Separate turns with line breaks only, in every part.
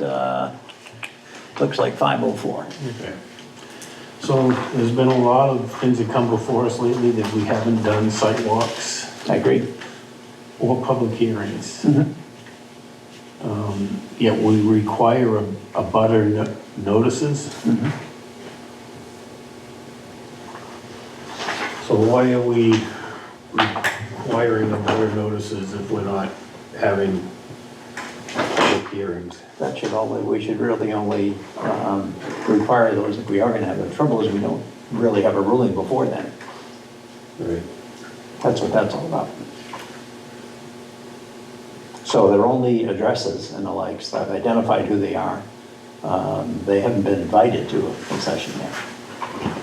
Uh, Looks like 504.
Okay. So there's been a lot of things that come before us lately that we haven't done sidewalks
I agree.
or public hearings. Um, Yet we require a, a butter no- notices. So why are we requiring a butter notices if we're not having public hearings?
That should only, we should really only um, require those if we are going to have it. The trouble is, we don't really have a ruling before then.
Right.
That's what that's all about. So they're only addresses and the likes. I've identified who they are. Um, They haven't been invited to a session yet.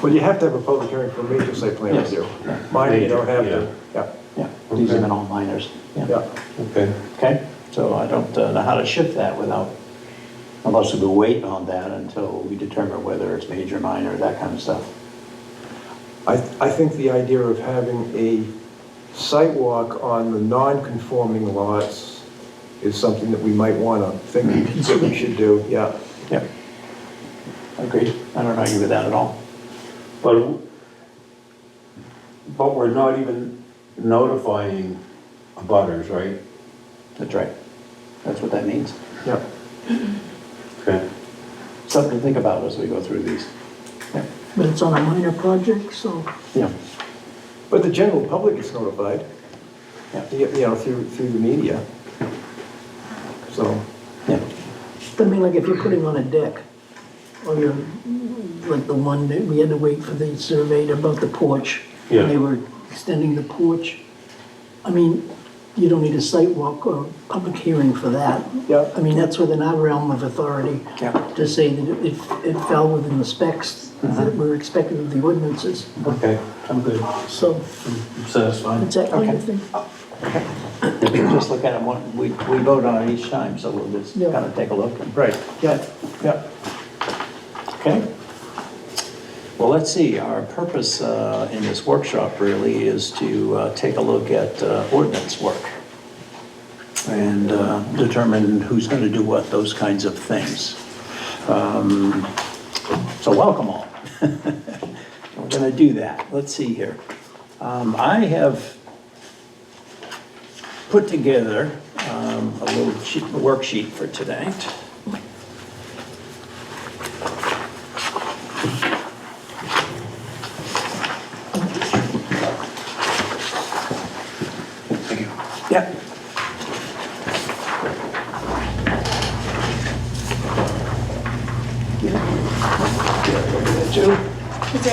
Well, you have to have a public hearing for major site plan
Yes.
review. Mine, you don't have to, yeah,
Yeah, these have
Okay.
been all minors.
yeah.
Okay.
Okay, so I don't uh, know how to shift that without, unless we wait on that until we determine whether it's major, minor, that kind of stuff.
I, I think the idea of having a site walk on the non-conforming lots is something that we might want to think
Mm-hmm.
that we should do, yeah.
Yep. Agreed, I don't argue with that at all.
But, but we're not even notifying abutters, right?
That's right, that's what that means.
Yeah,
Okay.
Something to think about as we go through these. Yeah.
But it's on a minor project, so
Yeah,
but the general public is notified,
yeah,
you you know, through, through the media. So,
yeah.
I mean, like if you're putting on a deck, or you're, like the one that we had to wait for the survey about the porch.
Yeah.
They were extending the porch. I mean, you don't need a site walk or public hearing for that.
Yeah.
I mean, that's within our realm of authority.
Yeah.
To say that it, it fell within the specs that were expected of the ordinances,
Okay, I'm good,
so
I'm satisfied.
it's that kind of
Okay.
thing.
Just look at them, one- we, we vote on it each time, so we'll just
Yeah.
kind of take a look. and-
right, yeah, yeah.
Okay. Well, let's see, our purpose uh, in this workshop really is to uh, take a look at uh, ordinance work and uh, determine who's going to do what, those kinds of things. Um, So welcome all. We're going to do that. Let's see here. Um, I have put together um, a little sheet- worksheet for tonight. Thank you. Yeah. Two.
Is there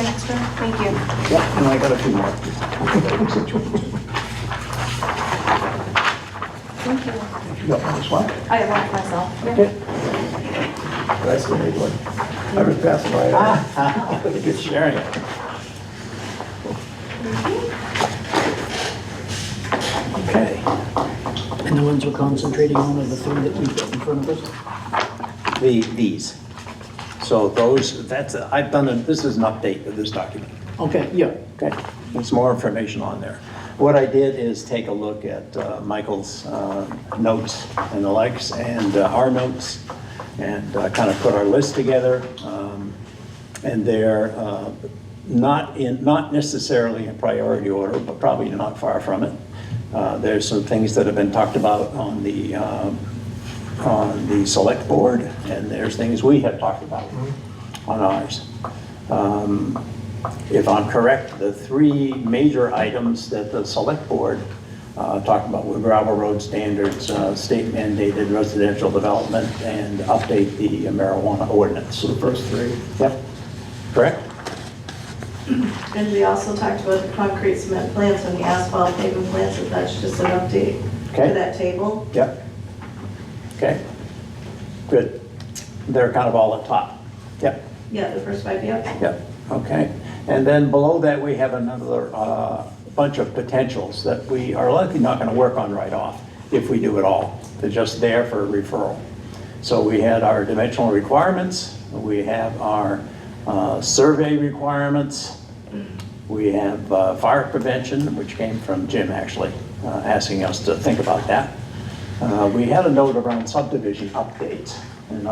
an extra? Thank you.
Yeah, and I got a few more.
Thank you.
You got this one?
I love myself. Yeah.
Okay.
That's the big one. I was passing by. uh,
Ah, look at you sharing it. Okay,
And the ones we're concentrating on are the three that we've got in front of us.
the, these. So those, that's, I've done, a- this is an update of this document.
Okay, yeah.
Okay, there's more information on there. What I did is take a look at uh, Michael's uh, notes and the likes, and uh, our notes, and kind of put our list together. um, And they're uh, not in, not necessarily in priority order, but probably not far from it. Uh, There's some things that have been talked about on the, um, on the select board, and there's things we have talked about on ours. Um, if I'm correct, the three major items that the select board uh, talked about were gravel road standards, uh, state mandated residential development, and update the marijuana ordinance. The first three? Yep, correct?
And we also talked about the concrete cement plants and the asphalt pavement plants, if that's just an update
Okay.
to that table.
Yep. Okay, good. They're kind of all at top. Yep.
Yeah, the first five, yeah.
Yep, okay. And then below that, we have another uh, bunch of potentials that we are likely not going to work on right off, if we do at all. They're just there for referral. So we had our dimensional requirements, we have our uh, survey requirements, we have uh, fire prevention, which came from Jim actually, uh, asking us to think about that. Uh, We had a note around subdivision updates.